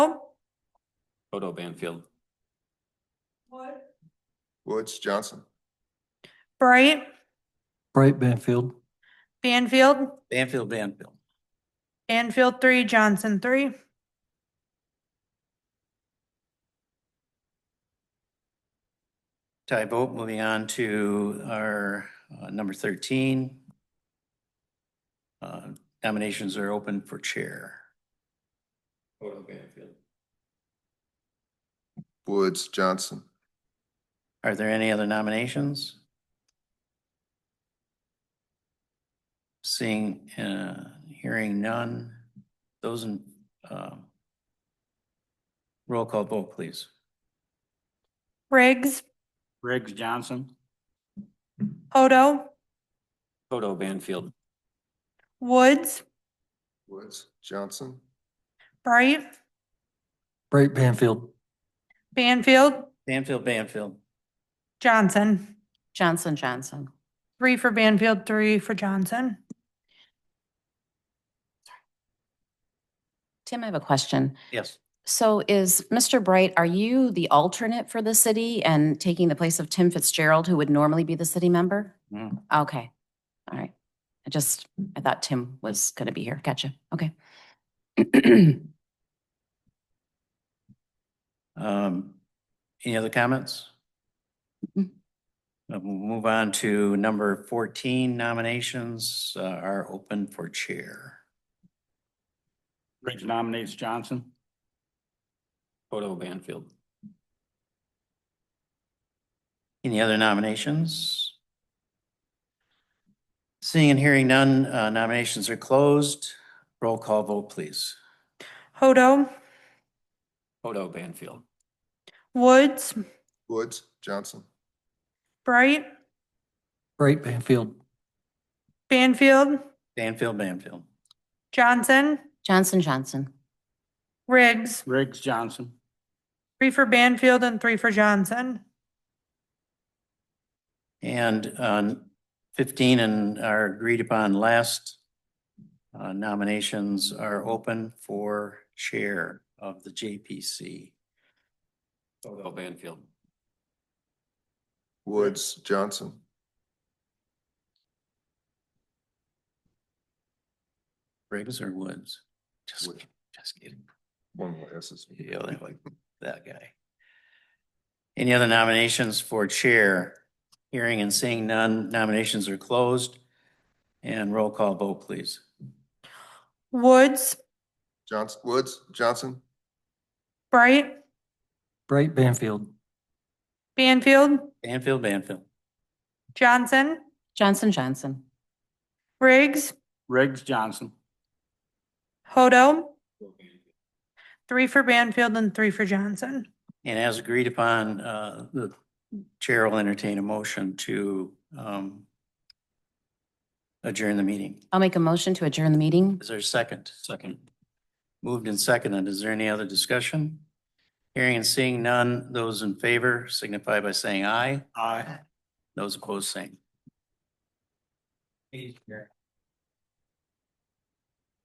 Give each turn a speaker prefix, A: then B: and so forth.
A: Odo Banfield.
B: Woods, Johnson.
C: Bright,
D: Bright Banfield.
C: Banfield,
E: Banfield, Banfield.
C: Banfield three, Johnson three.
E: Tie vote, moving on to our uh, number thirteen. Uh, Nominations are open for chair.
A: Odo Banfield.
B: Woods, Johnson.
E: Are there any other nominations? Seeing, uh, hearing none, those in, um, roll call vote, please.
C: Riggs,
F: Riggs Johnson.
C: Hodo,
A: Odo Banfield.
C: Woods,
B: Woods, Johnson.
C: Bright,
D: Bright Banfield.
C: Banfield,
E: Banfield, Banfield.
C: Johnson.
G: Johnson, Johnson.
C: Three for Banfield, three for Johnson.
G: Tim, I have a question.
E: Yes.
G: So is Mr. Bright, are you the alternate for the city and taking the place of Tim Fitzgerald, who would normally be the city member?
E: Mm.
G: Okay, all right. I just, I thought Tim was going to be here. Gotcha. Okay.
E: Um, any other comments? Uh,
G: Mm.
E: We'll move on to number fourteen nominations uh, are open for chair.
F: Riggs nominates Johnson.
A: Odo Banfield.
E: Any other nominations? Seeing and hearing none, uh, nominations are closed. Roll call vote, please.
C: Hodo,
A: Odo Banfield.
C: Woods,
B: Woods, Johnson.
C: Bright,
D: Bright Banfield.
C: Banfield,
E: Banfield, Banfield.
C: Johnson,
G: Johnson, Johnson.
C: Riggs.
F: Riggs Johnson.
C: Three for Banfield and three for Johnson.
E: And um, fifteen and our agreed upon last uh, nominations are open for chair of the JPC.
A: Odo Banfield.
B: Woods, Johnson.
E: Riggs or Woods? Just,
B: Woods.
E: just kidding.
B: One more S's.
E: Yeah, they like that guy. Any other nominations for chair? Hearing and seeing none, nominations are closed. And roll call vote, please.
C: Woods,
B: Johnson, Woods, Johnson.
C: Bright,
D: Bright Banfield.
C: Banfield,
E: Banfield, Banfield.
C: Johnson,
G: Johnson, Johnson.
C: Riggs,
F: Riggs Johnson.
C: Hodo. Three for Banfield and three for Johnson.
E: And as agreed upon, uh, the chair will entertain a motion to, um, adjourn the meeting.
G: I'll make a motion to adjourn the meeting.
E: Is there a second?
A: Second.
E: Moved and seconded. Is there any other discussion? Hearing and seeing none, those in favor signify by saying aye.
F: Aye.
E: Those opposed, same.